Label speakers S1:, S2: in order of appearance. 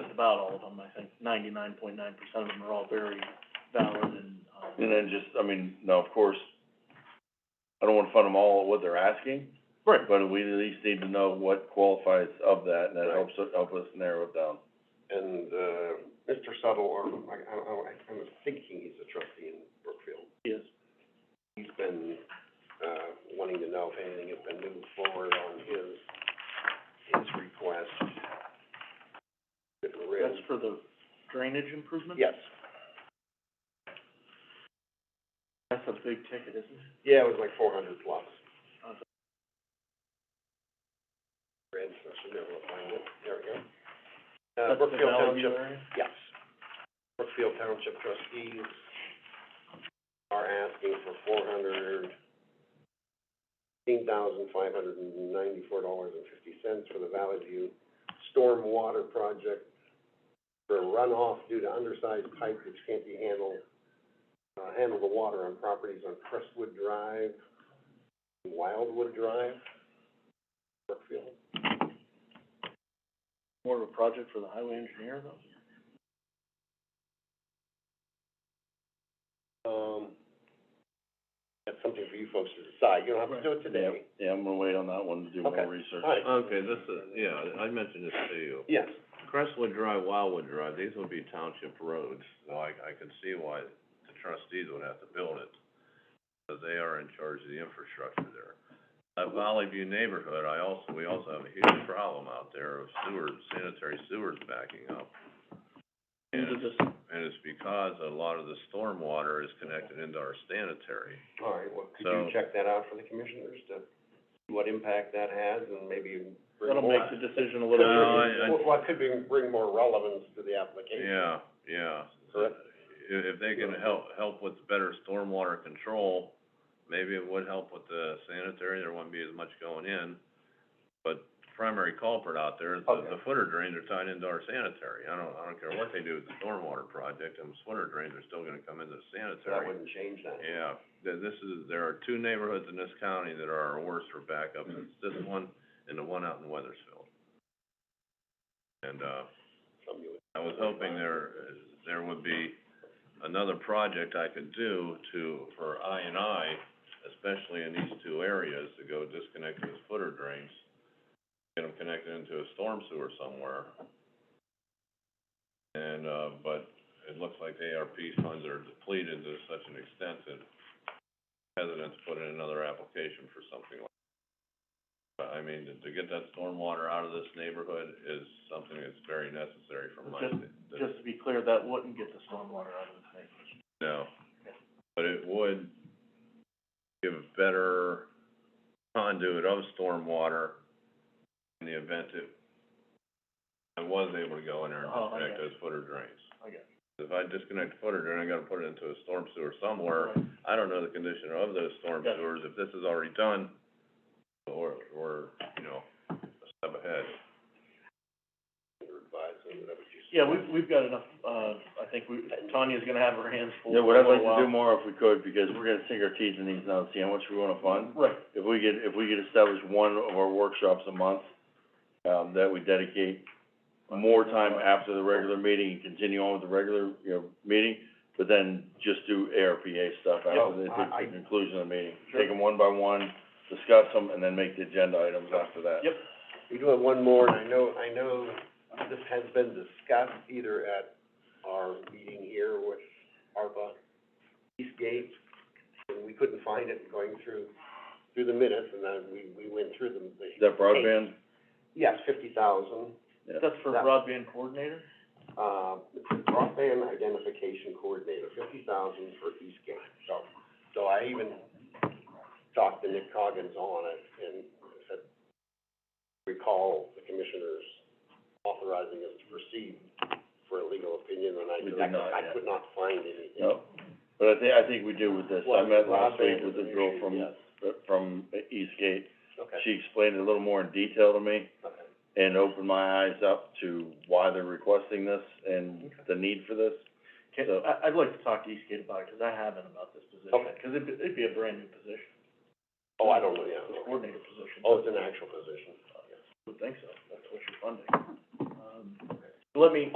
S1: just about all of them, I think ninety-nine point nine percent of them are all very valid and, um.
S2: And then just, I mean, now, of course, I don't wanna fund them all at what they're asking,
S1: Right,
S2: but we at least need to know what qualifies of that, and that
S3: Right.
S2: helps, us- help us narrow it down.
S3: And, uh, Mr. Suttle, or, I, I, I, I'm thinking he's a trustee in Brookfield.
S1: yes,
S3: He's been, uh, wanting to know if anything has been moved forward on his, his request. If we're in-
S1: that's for the drainage improvement?
S3: Yes,
S1: That's a big ticket, isn't it?
S3: yeah, it was like four hundred plus.
S1: Awesome.
S3: Red, so I should be able to find it, there we go. Uh, Brookfield Township Yes. Brookfield Township trustees are asking for four hundred, eighteen thousand five hundred and ninety-four dollars and fifty cents for the Valley View Stormwater Project for runoff due to undersized pipe which can't be handled, uh, handle the water on properties on Crestwood Drive, Wildwood Drive, Brookfield.
S1: More of a project for the highway engineer though?
S3: Um, that's something for you folks to decide. You don't have to do it today.
S2: Yeah, I'm gonna wait on that one to do
S3: Okay.
S2: more research.
S3: All right.
S4: Okay, this is, yeah, I mentioned this to you.
S3: Yes.
S4: Crestwood Drive, Wildwood Drive, these would be township roads, so I, I can see why the trustees would have to build it. Because they are in charge of the infrastructure there. That Valley View neighborhood, I also, we also have a huge problem out there of sewer, sanitary sewers backing up.
S1: Into
S4: And,
S1: this-
S4: and it's because a lot of the storm water is connected into our sanitary.
S3: All right, well, could you
S4: So-
S3: check that out for the commissioners to see what impact that has and maybe bring
S1: That'll
S3: more?
S1: make the decision a
S3: Could
S1: little
S3: bring-
S4: No,
S1: easier.
S4: I- I-
S3: Well, well, could bring, bring more relevance to the application.
S4: Yeah, yeah.
S3: Correct.
S4: If, if they can help, help with better stormwater control, maybe it would help with the sanitary, there wouldn't be as much going in. But primary culprit out there is the, the
S3: Okay.
S4: footer drains are tied into our sanitary. I don't, I don't care what they do with the stormwater project, them footer drains are still gonna come into the
S3: So that
S4: sanitary.
S3: wouldn't change that.
S4: Yeah, th- this is, there are two neighborhoods in this county that are our worst for backups,
S3: Mm-hmm.
S4: it's this one and the one out in Weathersfield. And, uh,
S3: Some you would-
S4: I was hoping there, uh, there would be another project I could do to, for I and I, especially in these two areas, to go disconnect those footer drains, get them connected into a storm sewer somewhere. And, uh, but it looks like the ARP funds are depleted to such an extent that hesitant to put in another application for something like. But I mean, to, to get that stormwater out of this neighborhood is something that's very necessary from my.
S1: Just-
S4: sta-
S1: Just to be clear, that wouldn't get the stormwater out of the thing.
S4: no, but it would give a better conduit of stormwater in the event it, I was able to go in there and
S1: Oh, I
S4: disconnect
S1: got
S4: those footer drains.
S1: I got
S4: If I disconnect the footer drain, I gotta put it into a storm sewer somewhere.
S1: Right.
S4: I don't know the condition of those storm
S1: Gotcha.
S4: sewers, if this is already done, or, or, you know, a step ahead.
S3: Your advisor, whatever you say.
S1: Yeah, we, we've got enough, uh, I think we, Tanya's gonna have her hands full
S2: Yeah,
S1: for
S2: what
S1: a
S2: I'd
S1: little while.
S2: like to do more if we could, because we're gonna sink our teeth in these now, and see how much we wanna fund.
S1: Right,
S2: If we could, if we could establish one of our workshops a month, um, that we dedicate more time after the regular meeting and continue on with the regular, you know, meeting, but then just do ARPA stuff
S3: Yeah,
S2: after the,
S3: I- I-
S2: the conclusion of the meeting.
S1: Oh, Sure.
S2: Take them one by one, discuss them, and then make the agenda items after that.
S1: Yep.
S3: We do have one more, and I know, I know this has been discussed either at our meeting here with ARPA, Eastgate, and we couldn't find it going through, through the minutes, and then we, we went through them, the.
S2: Is that broadband?
S3: Yes, fifty thousand,
S2: Yeah.
S1: that's for
S3: That-
S1: broadband coordinator?
S3: uh, broadband identification coordinator, fifty thousand for Eastgate, so, so I even talked to Nick Coggins on it, and said, recall the commissioners authorizing us to proceed for a legal opinion, and I
S2: We
S3: said,
S2: did not,
S3: I
S2: yeah.
S3: could not find anything.
S2: No, but I thi- I think we do with this, I
S3: Well,
S2: met last week
S3: broadband
S2: with
S3: is
S2: the
S3: an
S2: girl
S3: issue,
S2: from,
S3: yes.
S2: from Eastgate,
S3: Okay,
S2: she explained it a little more in detail to me,
S3: okay,
S2: and opened my eyes up to why they're requesting this and the need for this.
S1: Okay,
S2: So-
S1: I, I'd like to talk to Eastgate about it, 'cause I haven't about this position,
S3: Okay.
S1: 'cause it'd, be- it'd be a brand new position,
S3: oh, I don't know, yeah,
S1: the
S3: okay.
S1: coordinator position.
S3: oh, it's an actual position,
S1: Would think so, that's what you're funding. Um, let me,